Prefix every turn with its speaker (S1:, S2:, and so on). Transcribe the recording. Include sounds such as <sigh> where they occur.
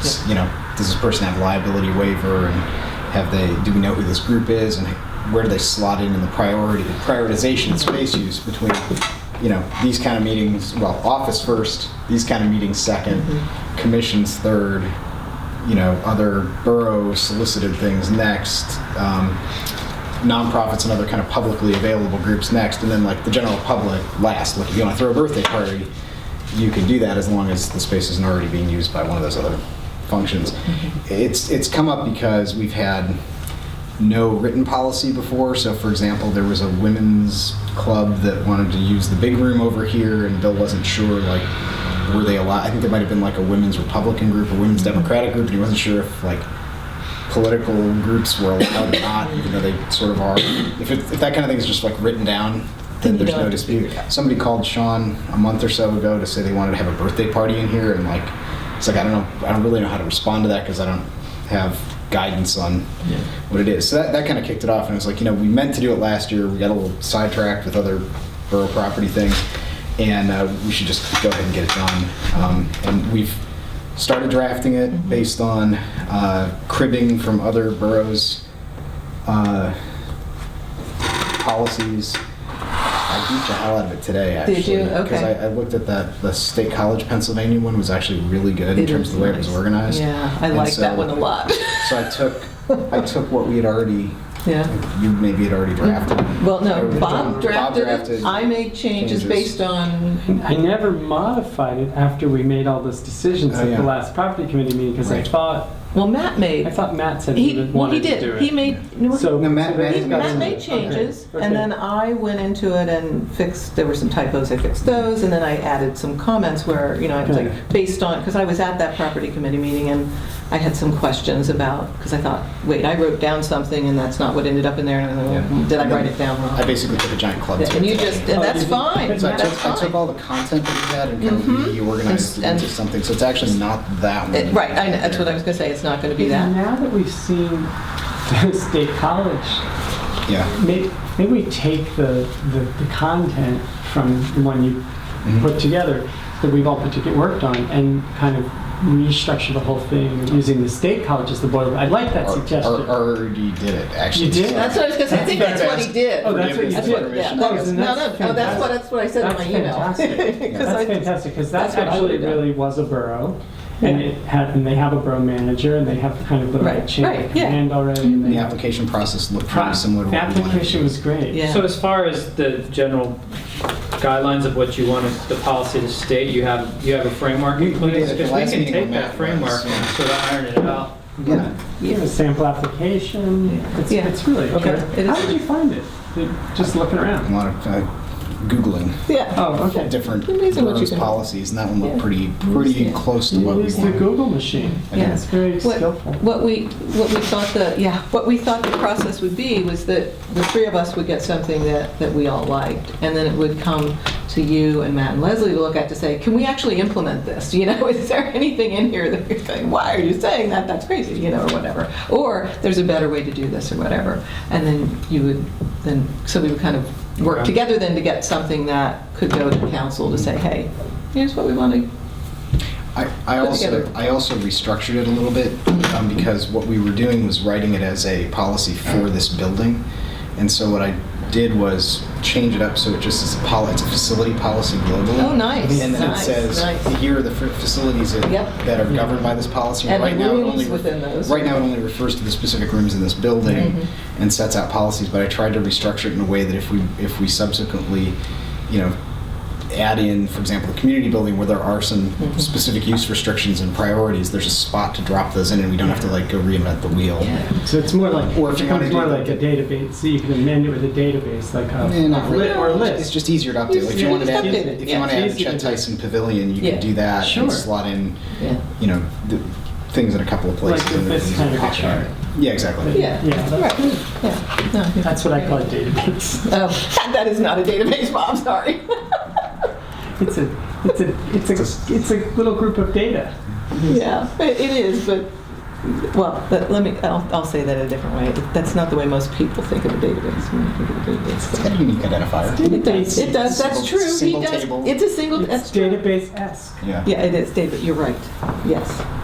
S1: s- you know, does this person have liability waiver and have they, do we know who this group is and where do they slot in in the priority, prioritization and space use between, you know, these kind of meetings, well, office first, these kind of meetings second, commissions third, you know, other borough solicited things next, um, nonprofits and other kind of publicly available groups next, and then like the general public last. Like if you want to throw a birthday party, you can do that as long as the space isn't already being used by one of those other functions.
S2: Mm-hmm.
S1: It's it's come up because we've had no written policy before. So for example, there was a women's club that wanted to use the big room over here, and Bill wasn't sure like were they allowed. I think there might have been like a women's Republican group, a women's Democratic group, and he wasn't sure if like political groups were allowed or not, even though they sort of are. If, it, if that kind of thing is just like written down, then
S2: Then you
S1: there's no
S2: don't-
S1: dispute. Somebody called Sean a month or so ago to say they wanted to have a birthday party in here, and like, it's like I don't know, I don't really know how to respond to that because I don't have guidance on what it is. So that, that kind of kicked it off, and it was like, you know, we meant to do it last year. We got a little sidetracked with other borough property things, and uh, we should just go ahead and get it done. Um, and we've started drafting it based on uh, cribbing from other boroughs' uh, policies. I beat the hell out of it today, actually.
S2: Did you?
S1: Because
S2: Okay.
S1: I, I looked at that, the State College Pennsylvania one was actually really good in
S2: It
S1: terms
S2: is
S1: of the way it was
S2: nice.
S1: organized.
S2: Yeah, I
S1: And
S2: like that
S1: so-
S2: one
S1: <laughs>
S2: a lot. <laughs>
S1: So I took, I took what we had already,
S2: Yeah.
S1: you maybe had already drafted.
S2: Well,
S1: I
S2: no,
S1: was
S2: Bob
S1: done-
S2: drafted it. I made changes
S1: changes.
S2: based on,
S3: I never modified it after we made all those decisions
S1: Oh,
S3: at
S1: yeah.
S3: the last property committee meeting, because I
S1: Right.
S3: thought,
S2: well, Matt made.
S3: I thought Matt said he
S2: He,
S3: would-
S2: well, he
S3: wanted to do
S2: did. He
S3: it.
S2: made, no,
S3: So.
S1: No, Matt-
S3: so then
S1: Matt-
S3: he's got
S2: Matt
S3: some-
S2: made changes, and then
S3: okay.
S2: I went into it and fixed, there were some typos, I fixed those, and then I added some comments where, you know, I was
S3: Okay.
S2: like, based on, because I was at that property committee meeting, and I had some questions about, because I thought, wait, I wrote down something, and that's not what ended up in there, and I
S1: Yeah.
S2: thought, did I
S1: And then
S2: write it down
S1: I
S2: wrong?
S1: basically took a giant club to it.
S2: And you just, and
S3: Oh,
S2: that's
S3: you did-
S2: fine,
S1: So I
S2: that's
S1: took, I took
S2: fine.
S1: all the content that we had and kind
S2: Mhm.
S1: of reorganized it
S2: And-
S1: into something, so it's actually not that
S2: It-
S1: one.
S2: Right, I know, that's what I was gonna say, it's not gonna be that.
S3: Now that we've seen the state college,
S1: Yeah.
S3: maybe, maybe we take the, the, the content from the one you
S1: Mm-hmm.
S3: put together, that we've all particularly worked on, and kind of restructure the whole thing using the state college as the boiler. I like that
S1: Or- or-
S3: suggestion.
S1: Already did it, actually.
S3: You did?
S1: so-
S2: That's what I was gonna say, I think that's what he did.
S3: Oh, that's what you
S1: That's
S2: That's what-
S3: did.
S2: yeah,
S1: information.
S2: that
S3: Oh,
S2: was-
S3: then
S2: No, no,
S3: that's
S2: no, that's what,
S3: fantastic.
S2: that's what I said in my
S3: That's
S2: email. <laughs>
S3: fantastic.
S2: 'Cause I-
S3: That's fantastic, because
S2: That's
S3: that
S2: what I
S3: actually
S2: would've done.
S3: really was a borough. And
S2: Yeah.
S3: it had, and they have a borough manager, and they have kind of the
S2: Right,
S3: right chain
S2: right,
S3: of
S2: yeah.
S3: command already. and
S1: The
S3: they-
S1: application process looked
S3: Pro-
S1: pretty similar to
S3: The
S1: what we wanted.
S3: application was great.
S2: Yeah.
S4: So as far as the general guidelines of what you want the policy to state, you have, you have a framework
S1: We- we
S4: in
S1: did
S4: place?
S1: it the
S4: Because
S1: last
S4: we can
S1: meeting
S4: take
S1: with
S4: that
S1: Matt
S4: framework
S1: was, yeah.
S4: and sort of iron it out.
S1: Yeah.
S3: You have a sample application. It's,
S2: Yeah.
S3: it's really
S2: Okay.
S3: good.
S2: It
S3: How
S2: is-
S3: did you find it? Did- Just looking
S1: A
S3: around.
S1: lot of uh, Googling
S2: Yeah.
S3: Oh, okay.
S1: different
S2: Amazing what you
S1: boroughs'
S2: can-
S1: policies, and that one
S2: Yeah.
S1: looked pretty, pretty
S2: Yeah.
S1: close to
S3: You
S1: what we
S3: use the
S1: wanted.
S3: Google machine.
S1: I did.
S3: It's very
S2: What-
S3: skillful.
S2: What we, what we thought the, yeah, what we thought the process would be was that the three of us would get something that, that we all liked, and then it would come to you and Matt and Leslie to look at to say, can we actually implement this? <laughs> You know, is there anything in here that you're saying, why are you saying that? That's crazy, you know, or whatever. Or there's a better way to do this or whatever. And then you would, then, so we would kind of work
S4: Okay.
S2: together then to get something that could go to council to say, hey, here's what we want to
S1: I, I
S2: Put
S1: also
S2: together.
S1: I also restructured it a little bit um, because what we were doing was writing it as a policy for this building, and so what I did was change it up so it just is a poli- it's a facility policy globally.
S2: Oh, nice,
S1: And then
S2: nice,
S1: it says
S2: nice.
S1: here are the fa- facilities that,
S2: Yep.
S1: that are governed by this policy.
S2: And the
S1: right now it
S2: rooms
S1: only
S2: within those.
S1: Right now it only refers to the specific rooms in this building
S2: Mm-hmm.
S1: and sets out policies. But I tried to restructure it in a way that if we if we subsequently, you know, add in, for example, the community building where there are some specific use restrictions and priorities, there's a spot to drop those in and we don't have to like go reinvent the wheel.
S3: So it's more like,
S1: Or if
S3: it
S1: you wanna
S3: becomes more
S1: do-
S3: like a database, so you can amend it with a database, like
S1: Eh, not
S3: a
S1: really.
S3: lit or
S1: It's
S3: list.
S1: just easier to update. Like, If you
S2: Yeah,
S1: want to
S2: just
S1: add,
S2: update
S1: if
S2: it.
S1: you want to
S3: Yeah.
S1: add a Chet Tyson Pavilion, you
S2: Yeah.
S1: can do that
S3: Sure.
S1: and slot in,
S2: Yeah.
S1: you know, the things in a couple of
S3: Like
S1: places. and
S3: this
S1: then
S3: kind of a
S1: pop
S3: chart.
S1: out. Yeah, exactly.
S2: Yeah.
S3: Yeah,
S2: Right,
S3: that's good.
S2: yeah, no, yeah.
S3: That's what I call a database.
S2: Oh, <laughs> that is not a database,
S1: <laughs>
S2: Bob, sorry.
S3: It's a, it's a, it's a, it's a little group of data.
S2: Yeah, <laughs> it it is, but, well, let let me, I'll, I'll say that a different way. That's not the way most people think of a database, when they think of a
S1: It's
S2: database.
S1: got a unique identifier.
S2: It does, it does, that's
S1: Single-
S2: true, he
S1: single
S2: does,
S1: table.
S2: it's a single,
S3: It's
S2: that's true.
S3: database-esque.
S1: Yeah.
S2: Yeah, it is, David, you're right, yes.